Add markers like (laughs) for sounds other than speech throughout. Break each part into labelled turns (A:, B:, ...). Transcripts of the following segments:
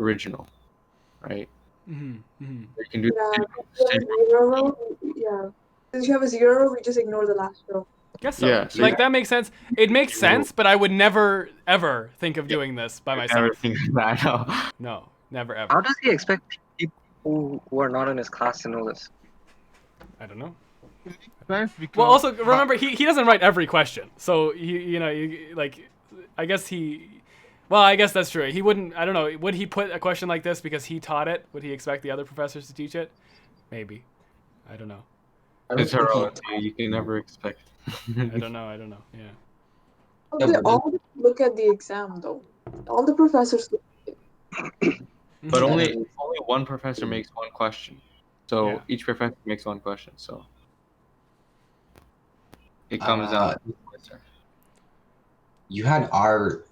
A: original, right?
B: Mhm, mhm.
A: You can do
C: Yeah.
A: the
C: If
A: same.
C: you have a zero, yeah. Since you have a zero, we just ignore the last row.
B: Guess so.
A: Yeah, so
B: like
A: you-
B: that makes sense. It makes sense, but I would never ever think of doing this by myself.
A: Everything (laughs) that I know.
B: No, never
D: How
B: ever.
D: does he expect people who, who are not in his class to know this?
B: I don't know.
E: Sense because,
B: Well, also remember he, he doesn't write every question, so he you know you, like I guess he. Well, I guess that's true. He wouldn't. I don't know. Would he put a question like this because he taught it? Would he expect the other professors to teach it? Maybe. I don't know.
A: It's heroic. You can never expect. (laughs)
B: I don't know. I don't know. Yeah.
C: They all look at the exam though. All the professors. Look.
A: but only only one professor makes one question. So
B: Yeah.
A: each professor makes one question. So it comes
F: uh,
G: Uh,
A: out.
F: You had R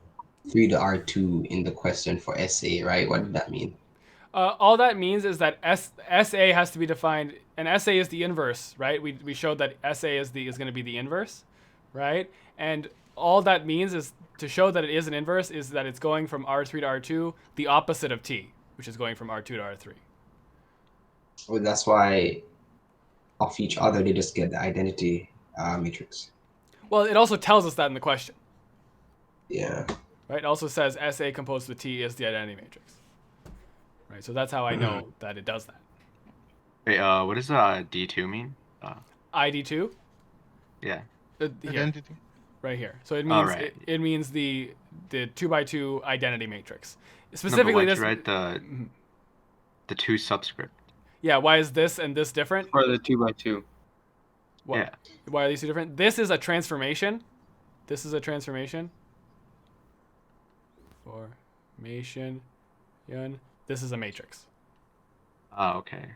F: three to R two in the question for essay, right? What did that mean?
B: Uh, all that means is that S- SA has to be defined. An SA is the inverse, right? We, we showed that SA is the is going to be the inverse, right? And all that means is to show that it is an inverse is that it's going from R3 to R2, the opposite of T, which is going from R2 to R3.
F: Well, that's why off each other they just get the identity uh, matrix.
B: Well, it also tells us that in the question,
F: Yeah.
B: right? It also says SA composed with T is the identity matrix, right? So that's how I know that it does that.
G: Wait, uh, what does uh D two mean?
B: ID2?
G: Yeah.
B: Uh, here.
E: identity.
B: right here. So it
G: All
B: means
G: right.
B: it, it means the the two by two identity matrix.
G: No, but
B: Specifically,
G: why'd
B: this
G: you write the
B: Mhm.
G: the two subscript.
B: yeah. Why is this and this different?
A: For the two by two.
B: Why,
G: Yeah.
B: why are these two different? This is a transformation. This is a transformation. Formation. yun. This is a matrix.
G: Oh, okay.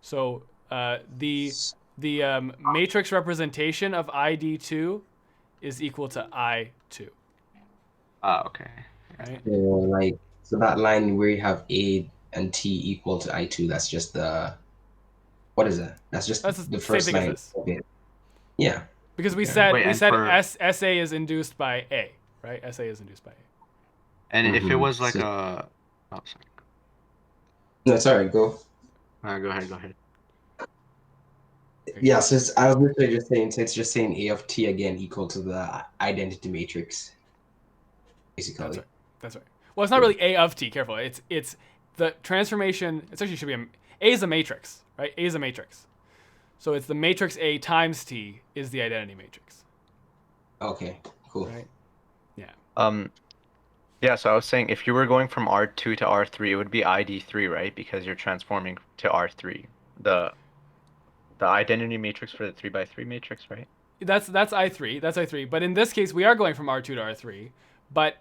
B: So uh, the the um, matrix representation of ID two is equal to I two.
G: Oh, okay.
B: Right.
F: So like so that line where you have A and T equal to I two, that's just the what is that? That's just
B: That's the
F: the
B: same
F: first
B: thing as
F: line.
B: this.
F: of it. Yeah.
B: Because we
F: Okay.
B: said
G: Wait,
B: we
G: and
B: said
G: for-
B: S, SA is induced by A, right? SA is induced by A.
G: And if it
F: Mhm.
G: was like
F: So-
G: a, oh sorry.
F: No, sorry, go.
G: Uh, go ahead, go ahead.
F: Yeah, so it's, I was literally just saying, so it's just saying A of T again equal to the identity matrix,
B: That's
F: basically.
B: right. That's right. Well, it's not really A of T. Careful. It's it's the transformation. It's actually should be a, A is a matrix, right? A is a matrix. So it's the matrix A times T is the identity matrix,
F: Okay, cool.
B: right?
H: Um, yeah, so I was saying if you were going from R2 to R3, it would be ID3, right? Because you're transforming to R3. The the identity matrix for the 3 by 3 matrix, right?
B: That's that's I three. That's I three. But in this case, we are going from R two to R three, but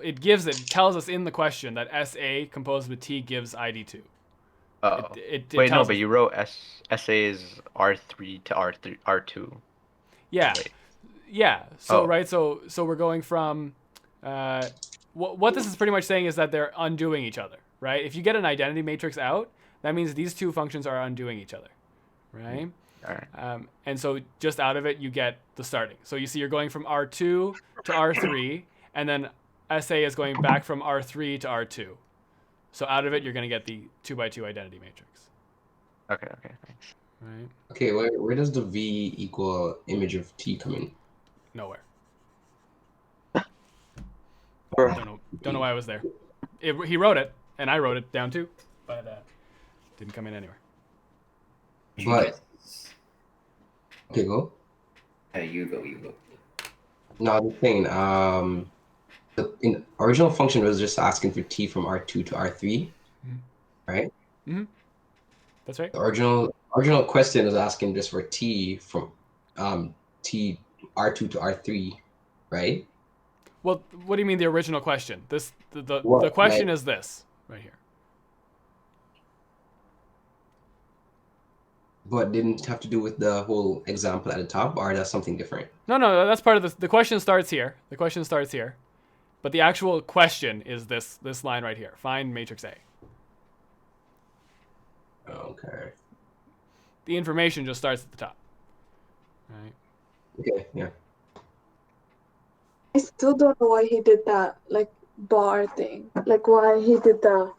B: it gives it tells us in the question that S A composed with T gives ID two.
H: Oh.
B: It, it, it
H: Wait, no,
B: tells
H: but
B: us-
H: you wrote S SA is R3 to R3 R2.
B: yeah.
H: Wait.
B: Yeah. So
H: Oh.
B: right. So so we're going from. Uh, what what this is pretty much saying is that they're undoing each other, right? If you get an identity matrix out, that means these two functions are undoing each other, right?
H: Mm-hmm. All right.
B: Um, and so just out of it, you get the starting. So you see, you're going from R two to R three, and then SA is going back from R three to R two. So out of it, you're going to get the two by two identity matrix,
H: Okay, okay, thanks.
B: right?
F: Okay, where, where does the V equal image of T come in?
B: Nowhere.
F: Or-
B: Don't know. Don't know why I was there. It, he wrote it, and I wrote it down too, but uh, didn't come in anywhere.
F: But okay, go.
I: Hey, Uh, you go, you go.
F: No, I was saying, um, the in, original function was just asking for T from R two to R 3
B: Mhm.
F: right?
B: That's right.
F: The original original question was asking just for T from um T R two to R three, right?
B: Well, what do you mean the original question? This the the,
F: Well,
B: the question is this right here.
F: but didn't have to do with the whole example at the top, or that's something different.
B: No, no, that's part of the the question starts here. The question starts here, but the actual question is this this line right here. Find matrix A.
F: Okay.
B: The information just starts at the top. Right.
F: Okay. Yeah.
C: I still don't know why he did that like bar thing. Like why he did that.